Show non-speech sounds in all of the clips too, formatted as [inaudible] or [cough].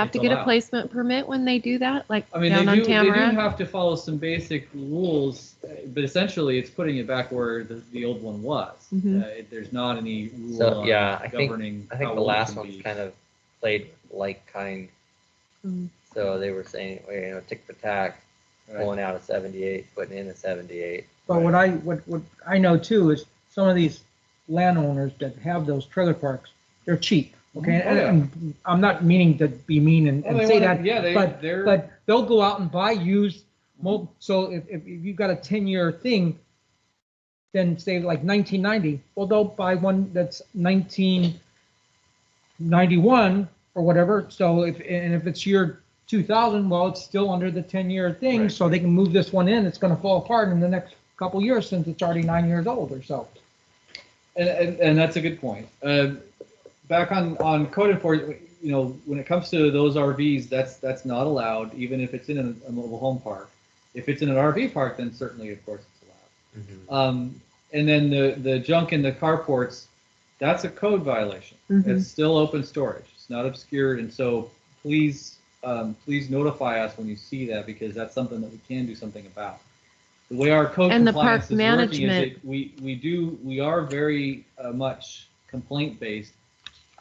have It's to get a allowed. placement permit when they do that, like I mean, down they on do, they do Tamarack? have to follow some basic rules, uh, but essentially it's putting it back where the, the old one was. Mhm. Uh, it- there's not any rule So, on yeah, I think- governing. I think how the old it last can one's be. kind of played like kind. Hmm. Mm. So they were saying, well, you know, tick for tack, Right. pulling out a 78, putting in a 78. But what I, what, what I know too is some of these landowners that have those trailer parks, they're cheap, okay? Mhm. Oh, yeah. And I'm not meaning to be mean and, Oh, and they say wanna- that, yeah, they, but, they're but they'll go out and buy used, mo- so if, if if you've got a ten-year thing, then say like nineteen ninety, well, they'll buy one that's nineteen ninety-one or whatever, so if, and if it's year two thousand, well, it's still under the ten-year thing, Right. so they can move this one in, it's gonna fall apart in the next couple years since it's already nine years old or so. And, and, and that's a good point. Uh, back on, on code enforcement, you know, when it comes to those RVs, that's, that's not allowed, even if it's in a, a mobile home park. If it's in an RV park, then certainly, of course, it's allowed. Mm-hmm. Um, and then the, the junk in the carports, that's a code violation. Mhm. It's still open storage. It's not obscured. And so please, um, please notify us when you see that because that's something that we can do something about. The way our code And the compliance park is working is management- that we, we do, we are very uh, much complaint based.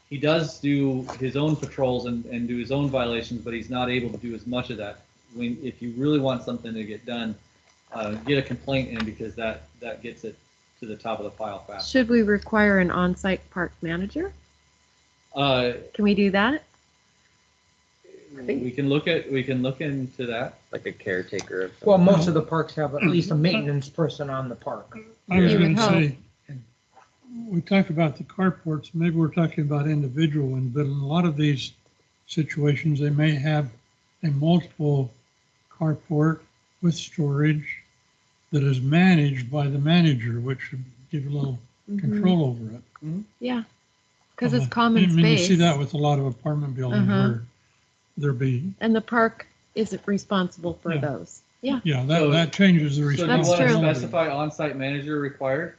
He does do his own patrols and, and do his own violations, but he's not able to do as much of that. When, if you really want something to get done, uh, get a complaint in because that, that gets it to the top of the file fast. Should we require an on-site park manager? Uh, Can we do that? think- We can look at, we can look into that. Like a caretaker of some Well, most of the parks have at least a maintenance person on the park. I was You would gonna say, we talked about the carports, maybe we're talking about individual ones, but in a lot of these situations, they may have a multiple carport with storage that is managed by the manager, which would give a little control over it. Yeah, because Mm-hmm. it's Uh, common Mm-hmm. I mean, you see that space, with a lot of apartment buildings Uh-huh. where there be, and the park isn't responsible for Yeah. those. Yeah, yeah, that, So- that changes the So do you want to responsibility. specify on-site manager required?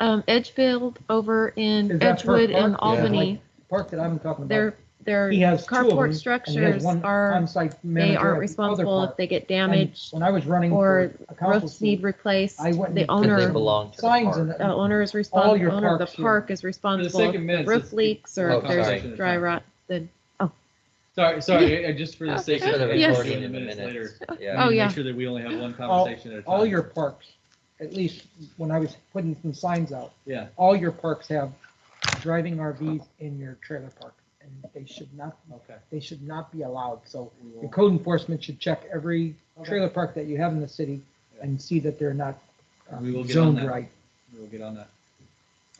um, Edgefield over Is in that per Edgewood and park? Yeah. Albany, Park that I'm talking about, their, their he has two of them, carport and he has structures one are, on-site manager. they at the aren't other responsible if park. they get And damaged, When I was running or for a council roofs need seat, replaced, I went the and- Because they owner, belong to the signs and park. the owner is All your responsible, owner of the parks here. park is responsible sake if of the minutes, roof it's- leaks or Oh, if there's sorry. dry rot, then, [laughs] Sorry, sorry, I- I just for the sake Just for of the Yes. recording in in the minutes later. minutes. we Yeah. Oh, need to yeah. Make sure that we only have one All- conversation at a time. all your parks, at least when I was putting some signs out, Yeah, all your parks have driving RVs in your trailer park. And they should not, okay. they should not be allowed. So We the will- code enforcement should check every Okay. trailer park that you have in the city and see that they're not uh, We will get on zoned that. right. We'll get on that.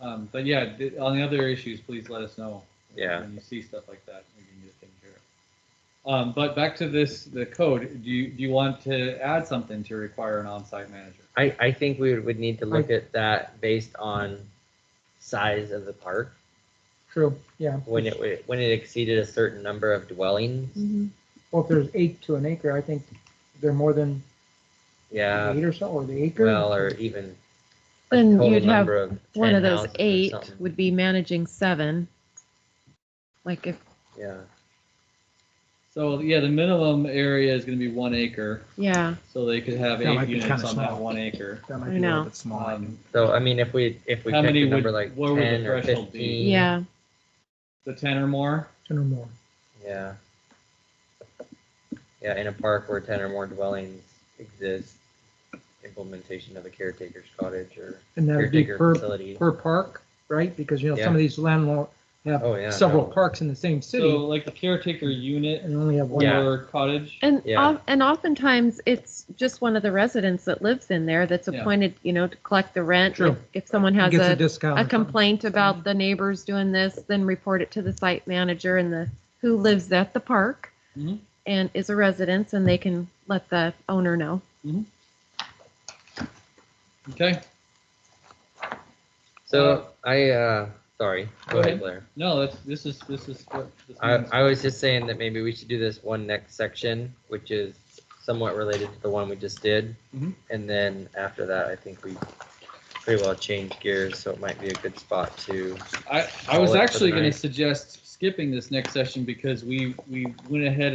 Um, but yeah, th- on the other issues, please let us know. Yeah. When you see stuff like that, we can get it taken care of. Um, but back to this, the code, do you, do you want to add something to require an on-site manager? I, I think we would need to look at that based on size of the park. True, yeah. When it, when it exceeded a certain number of Hmm. dwellings, Mm-hmm. mhm. Well, if there's eight to an acre, I think they're more than yeah, eight or so, or the acre. well, or even. a Then total you'd have number of one 10 of those houses or eight something. would be managing seven. Like if, Yeah, So yeah, the minimum area is gonna be one acre, yeah, so they could have That might eight be units kinda on that small. [laughs] one acre. That might I be a know. little bit small. I Um, think. so I mean, if we, if we How picked many a would- number like where would the ten or threshold be? fifteen. yeah. the ten or more. Ten or more. Yeah. Yeah, in a park where ten or more dwellings exist, implementation of a caretaker's cottage or And that would be caretaker per, facility. per park, right? Because, you know, some of these landlord have Oh, yeah. several no. parks in the same So city like the caretaker unit and only have one. Yeah. or cottage. And Yeah. of- and oftentimes it's just one of the residents that lives in there that's Yeah. appointed, you know, to collect the rent. True. If, if someone has Gets a a, discount. a or something. complaint about the neighbors doing this, then report it to the site manager and the who lives at the park Mm-hmm. Mhm. and is a resident, and they can let the owner know. Okay. So I, uh, sorry, Go go ahead. ahead, Blair. No, that's this is this is what this I, means. I was just saying that maybe we should do this one next section, which is somewhat related to the one we just did. Mhm. And then after that, I think we pretty well changed gears, so it might be a good spot to, I, I was Call it for actually the going to night. suggest skipping this next session because we, we went ahead